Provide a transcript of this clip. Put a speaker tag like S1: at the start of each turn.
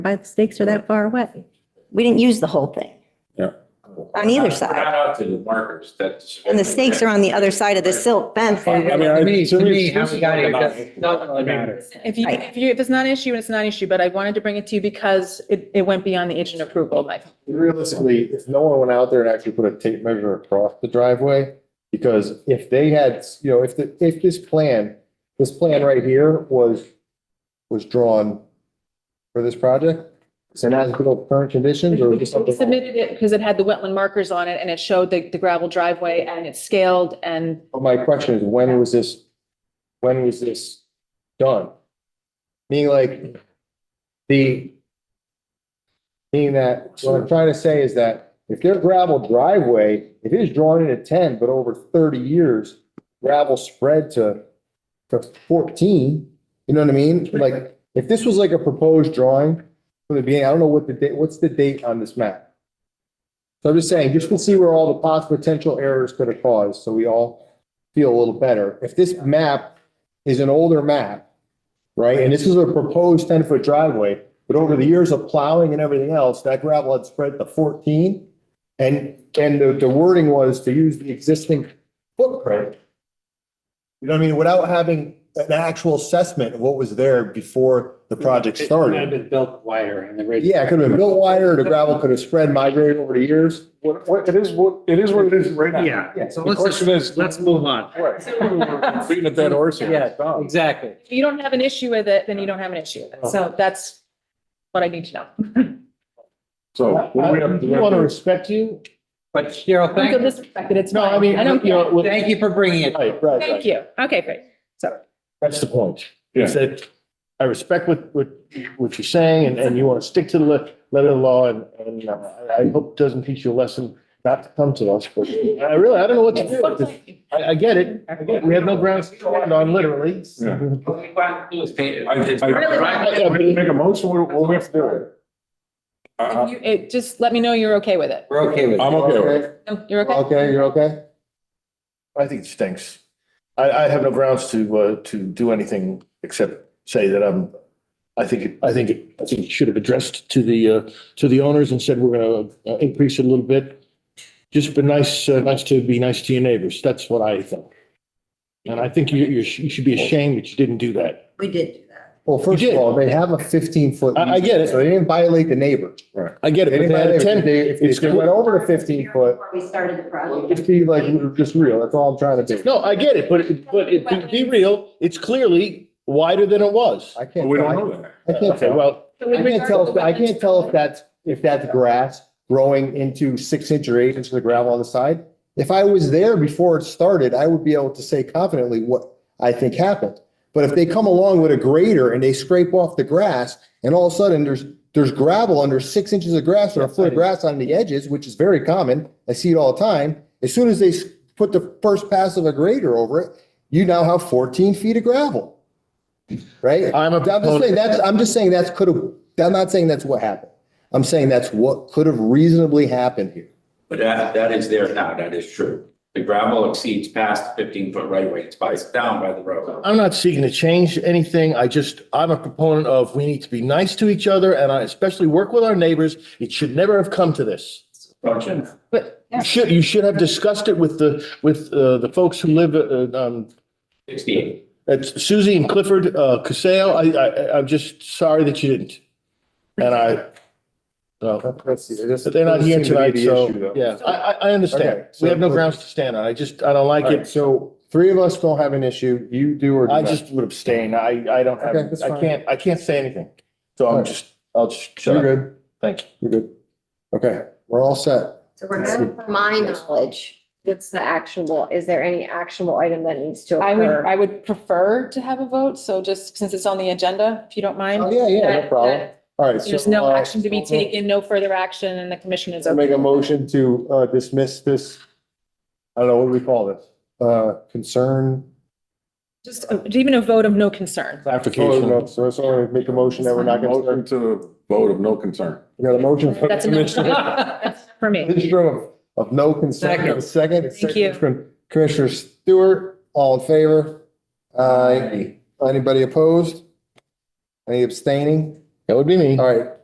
S1: Why the stakes are that far away?
S2: We didn't use the whole thing.
S3: Yeah.
S2: On either
S4: We're
S2: side.
S4: not out to the markers, that's.
S2: And the stakes are on the other side of the silt fence.
S3: I mean,
S2: Right,
S3: I-
S5: To me, to me, how
S3: this
S5: we
S3: is
S5: got here
S3: not-
S5: doesn't doesn't really matter.
S6: If you,
S2: Right.
S6: if you, if it's not an issue, it's not an issue, but I wanted to bring it to you because it, it went beyond the agent approval, like.
S7: Realistically, if no one went out there and actually put a tape measure across the driveway, because if they had, you know, if the, if this plan, this plan right here was, was drawn for this project, it's an as-built current conditions or
S6: We
S7: just something.
S6: Submitted it because it had the wetland markers on it and it showed the, the gravel driveway and it's scaled and
S7: But My question is, when was this, when was this done? Meaning like, the, meaning that, what I'm trying to say is that if their gravel driveway, if it is drawn into ten, but over thirty years, gravel spread to, to fourteen, you know what I mean? Like, if this was like a proposed drawing from the beginning, I don't know what the date, what's the date on this map? So I'm just saying, just to see where all the possible potential errors could have caused, so we all feel a little better. If this map is an older map, right, and this is a proposed ten-foot driveway, but over the years of plowing and everything else, that gravel had spread to fourteen. And, and the, the wording was to use the existing footprint. You know what I mean? Without having an actual assessment of what was there before the project
S5: It might have
S7: started.
S5: been built wider and the ridge.
S7: Yeah, it could have been built wider, the gravel could have spread, migrated over the years.
S3: What, what, it is, what, it is what it is right now.
S5: Yeah.
S7: Yeah, so
S3: The
S5: let's
S3: question is.
S5: Let's move on.
S3: Right. Beating a dead horse here.
S5: Yeah,
S3: Stop.
S5: Exactly.
S6: if you don't have an issue with it, then you don't have an issue with it. So that's what I need to know.
S3: So. what do we have to do?
S5: want to respect you. But Cheryl,
S6: I feel
S5: thank,
S6: disrespected, it's
S5: no,
S6: fine.
S5: I mean,
S6: I don't
S5: you
S6: care.
S5: know, thank you for bringing it.
S7: Right, right,
S6: Thank
S7: right.
S6: you. Okay, great.
S7: That's the point.
S3: Yeah.
S7: Is that I respect what, what, what you're saying and, and you want to stick to the le- letter of the law and, and uh, I I hope it doesn't teach you a lesson not to come to us, but I really, I don't know what to do. I, I get it. I get it. We have no grounds to stand on literally.
S3: Yeah.
S5: What we want to do is paint
S3: I, I, I, make a motion, what, do- what do we have to do? I,
S6: If
S3: I,
S6: you- It, just let me know you're okay with it.
S5: We're okay with it.
S3: I'm okay with it.
S6: No, You're okay?
S7: Okay, you're okay?
S8: I think it stinks. I, I have no grounds to, uh, to do anything except say that I'm, I think, it- I think, it- I think it should have addressed to the, uh, to the owners and said, we're going to increase it a little bit. Just be nice, uh, nice to be nice to your neighbors. That's what I think. And I think you, you sh- you should be ashamed that you didn't do that.
S2: We did do that.
S7: Well, first
S8: did.
S7: of all, they have a fifteen foot.
S8: I- I get it.
S7: So they didn't violate the neighbor.
S8: I get it.
S7: They
S8: but
S7: didn't
S8: they had a
S7: violate- If
S8: 10
S7: they, if they went over to fifteen foot,
S2: Before we started the project.
S7: just be like, just real, that's all I'm trying to do.
S8: No, I get it, but, it- but it, be- be real, it's clearly wider than it was.
S7: I can't.
S3: but we
S7: I-
S3: don't know that.
S7: I can't
S8: Okay,
S7: tell.
S8: well,
S7: I can't tell, if- I can't tell if that's, if that's grass growing into six inch or eight inch of the gravel on the side. If I was there before it started, I would be able to say confidently what I think happened. But if they come along with a grader and they scrape off the grass and all of a sudden there's, there's gravel under six inches of grass or a foot of grass on the edges, which is very common. I see it all the time. As soon as they s- put the first pass of a grader over it, you now have fourteen feet of gravel. Right?
S8: I'm a
S7: I'm just saying that's, I'm just saying that's could have, I'm not saying that's what happened. I'm saying that's what could have reasonably happened here.
S4: But that, that is there now, that is true. The gravel exceeds past fifteen foot right away, it's by, it's down by the road.
S8: I'm not seeking to change anything. I just, I'm a proponent of we need to be nice to each other and I especially work with our neighbors. It should never have come to this.
S4: Function.
S6: But
S8: You should, you should have discussed it with the, with uh, the folks who live, uh, um,
S4: Sixty-eight.
S8: at Suzie and Clifford, uh, Casale. I, I, I'm just sorry that you didn't. And I, so, but they're not here tonight, so, yeah, I, I, I
S7: Okay,
S8: understand.
S7: so-
S8: We have no grounds to stand on. I just, I don't like
S7: All right,
S8: it.
S7: so three of us don't have an issue. You do or do
S8: I
S7: not.
S8: just would abstain. I, I don't have,
S7: Okay, that's fine.
S8: I can't, I can't say anything. So I'm
S7: Alright.
S8: just, I'll just shut
S7: You're
S8: up.
S7: good.
S8: Thank you.
S7: You're good. Okay, we're all set.
S9: So we're going for my knowledge, what's the actionable, is there any actionable item that needs to
S6: I would,
S9: occur?
S6: I would prefer to have a vote. So just since it's on the agenda, if you don't mind.
S7: Oh, yeah, yeah, no
S6: that-
S7: problem.
S6: that
S7: All right.
S6: There's
S7: so,
S6: no
S7: uh,
S6: action to be taken, no further action and the commission is.
S7: I
S6: okay.
S7: make a motion to uh, dismiss this, I don't know, what do we call this? Uh, concern?
S6: Just uh, even a vote of no concern.
S7: Oh, no, So it's only make a motion that we're not going to,
S3: Motion to vote of no concern.
S7: you got a motion from
S6: That's
S7: Commissioner
S6: enough for me.
S7: Lindstrom of, of no concern.
S5: Second.
S7: Second.
S6: Thank you.
S7: From Commissioner Stewart, all in favor? Aye. Anybody opposed? Any abstaining?
S8: That would be me.
S7: All right,